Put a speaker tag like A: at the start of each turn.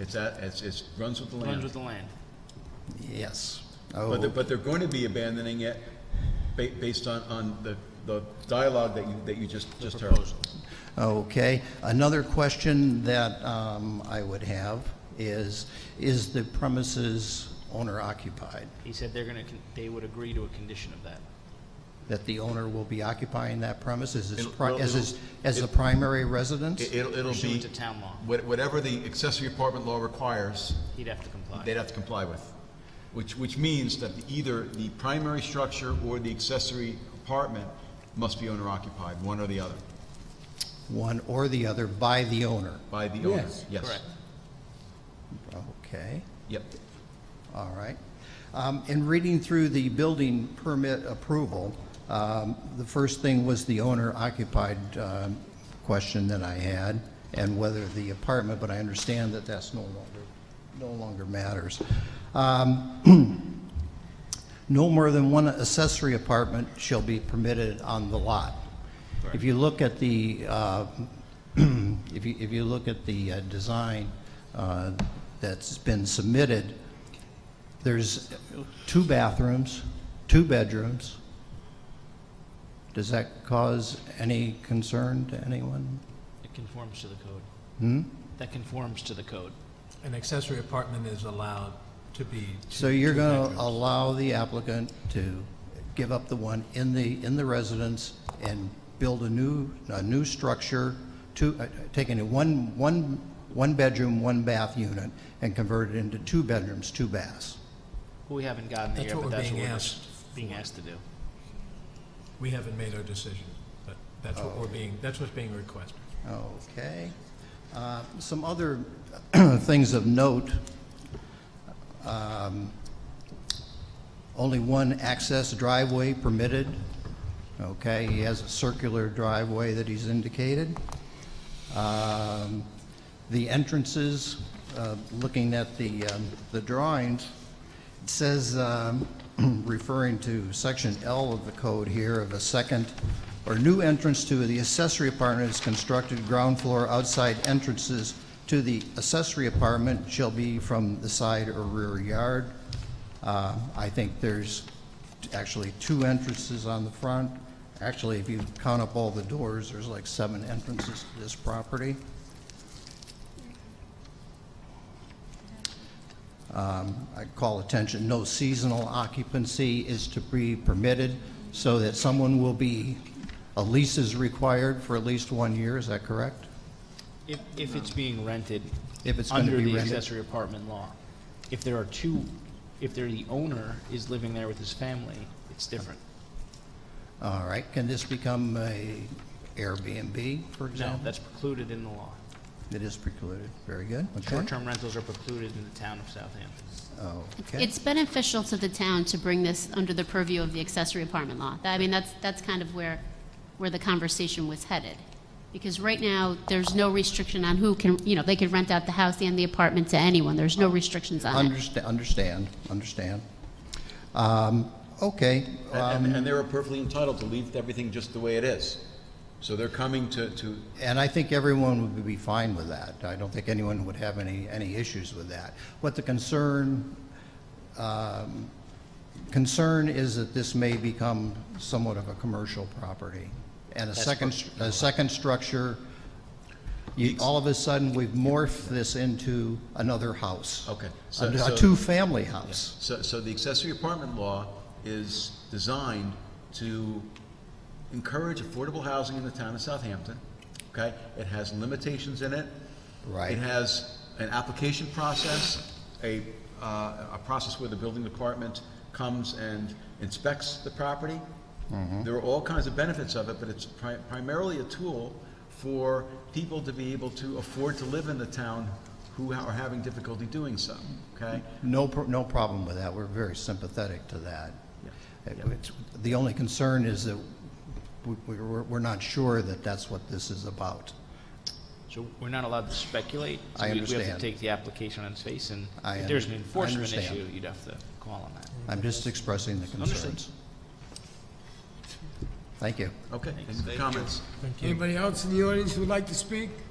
A: It's at, it's, it's, runs with the
B: runs with
A: land.
B: the land.
C: Yes.
A: But they're,
C: Oh,
A: but they're going to be abandoning it ba- based on, on the, the dialogue that you, that you just, just heard.
C: okay. Another question that um, I would have is, is the premises owner occupied?
B: He said they're gonna, con- they would agree to a condition of that.
C: That the owner will be occupying that premise as his,
A: It'll-
C: pri-
A: well,
C: as his, as the
A: it'll-
C: primary residence?
A: It- It'll, it'll be,
B: Pursuant to town law,
A: what- whatever the accessory apartment law requires,
B: he'd have to comply.
A: they'd have to comply with. Which, which means that either the primary structure or the accessory apartment must be owner occupied, one or the other,
C: One or the other by the owner?
A: by the owner.
D: Yes.
A: Yes.
B: Correct.
C: Okay.
A: Yep.
C: All right. Um, In reading through the building permit approval, um, the first thing was the owner occupied um, question that I had and whether the apartment, but I understand that that's no longer, no longer matters. Um, No more than one accessory apartment shall be permitted on the lot. If you look at the uh, if you, if you look at the uh, design uh, that's been submitted, there's two bathrooms, two bedrooms. Does that cause any concern to anyone?
B: It conforms to the code. That conforms to the code.
D: An accessory apartment is allowed to be. two-
C: So you're
D: two
C: going
D: bedrooms.
C: to allow the applicant to give up the one in the, in the residence and build a new, a new structure, two, uh, taking a one, one, one bedroom, one bath unit and convert it into two bedrooms, two baths?
B: We haven't gotten there
D: That's
B: yet,
D: what
B: but
D: we're
B: that's what
D: being
B: we're
D: asked
B: just being asked to do.
D: We haven't made our decision, but that's what we're being, that's what's being requested.
C: Okay. Uh, Some other things of note. Um, Only one access driveway permitted. Okay, he has a circular driveway that he's indicated. Um, The entrances, uh, looking at the um, the drawings, it says, um, referring to section L of the code here, of a second or new entrance to the accessory apartment is constructed, ground floor outside entrances to the accessory apartment shall be from the side or rear yard. Uh, I think there's actually two entrances on the front. Actually, if you count up all the doors, there's like seven entrances to this property. Um, I call attention, no seasonal occupancy is to be permitted, so that someone will be, a lease is required for at least one year, is that correct?
B: If, if it's being rented.
C: If it's gonna be
B: Under the
C: rented.
B: accessory apartment law. If there are two, if there, the owner is living there with his family, it's different.
C: All right, can this become a Airbnb, for
B: No,
C: example?
B: that's precluded in the law.
C: It is precluded, very good, okay. Oh,
B: Short-term rentals are precluded in the town of Southampton.
C: Okay,
E: It's beneficial to the town to bring this under the purview of the accessory apartment law. That- I mean, that's, that's kind of where, where the conversation was headed. Because right now, there's no restriction on who can, you know, they could rent out the house and the apartment to anyone. There's no restrictions on it.
C: Understa- understand, understand. Um, Okay,
B: Um,
A: And, and- and they were perfectly entitled to leave everything just the way it is. So they're coming to, to,
C: And I think everyone would be fine with that. I don't think anyone would have any, any issues with that. What the concern, um, concern is that this may become somewhat of a commercial property. And a second, str- a second structure, you, all of a sudden, we've morphed this into another house.
A: Okay, so-
C: A
B: uh,
A: so-
C: a two-family house.
A: So, so the accessory apartment law is designed to encourage affordable housing in the town of Southampton, okay? It has limitations in it.
C: Right.
A: It has an application process, a, uh, a process where the building department comes and inspects the property. There are all kinds of benefits of it, but it's pri- primarily a tool for people to be able to afford to live in the town who are having difficulty doing so, okay?
C: No, pro- no problem with that. We're very sympathetic to that.
A: Yeah.
C: It- it's- The only concern is that we- we- we're we're not sure that that's what this is about.
B: So we're not allowed to speculate. so
C: I
B: we- We have
C: understand.
B: to take the application on its face, and
C: I
B: if there's
C: un-
B: an
C: I
B: enforcement
C: understand.
B: issue, you'd have to call on that.
C: I'm just expressing the
B: Understood.
C: concerns. Thank you.
A: Okay, any comments?
D: Thank you.
F: Anybody else in the audience who would like to speak?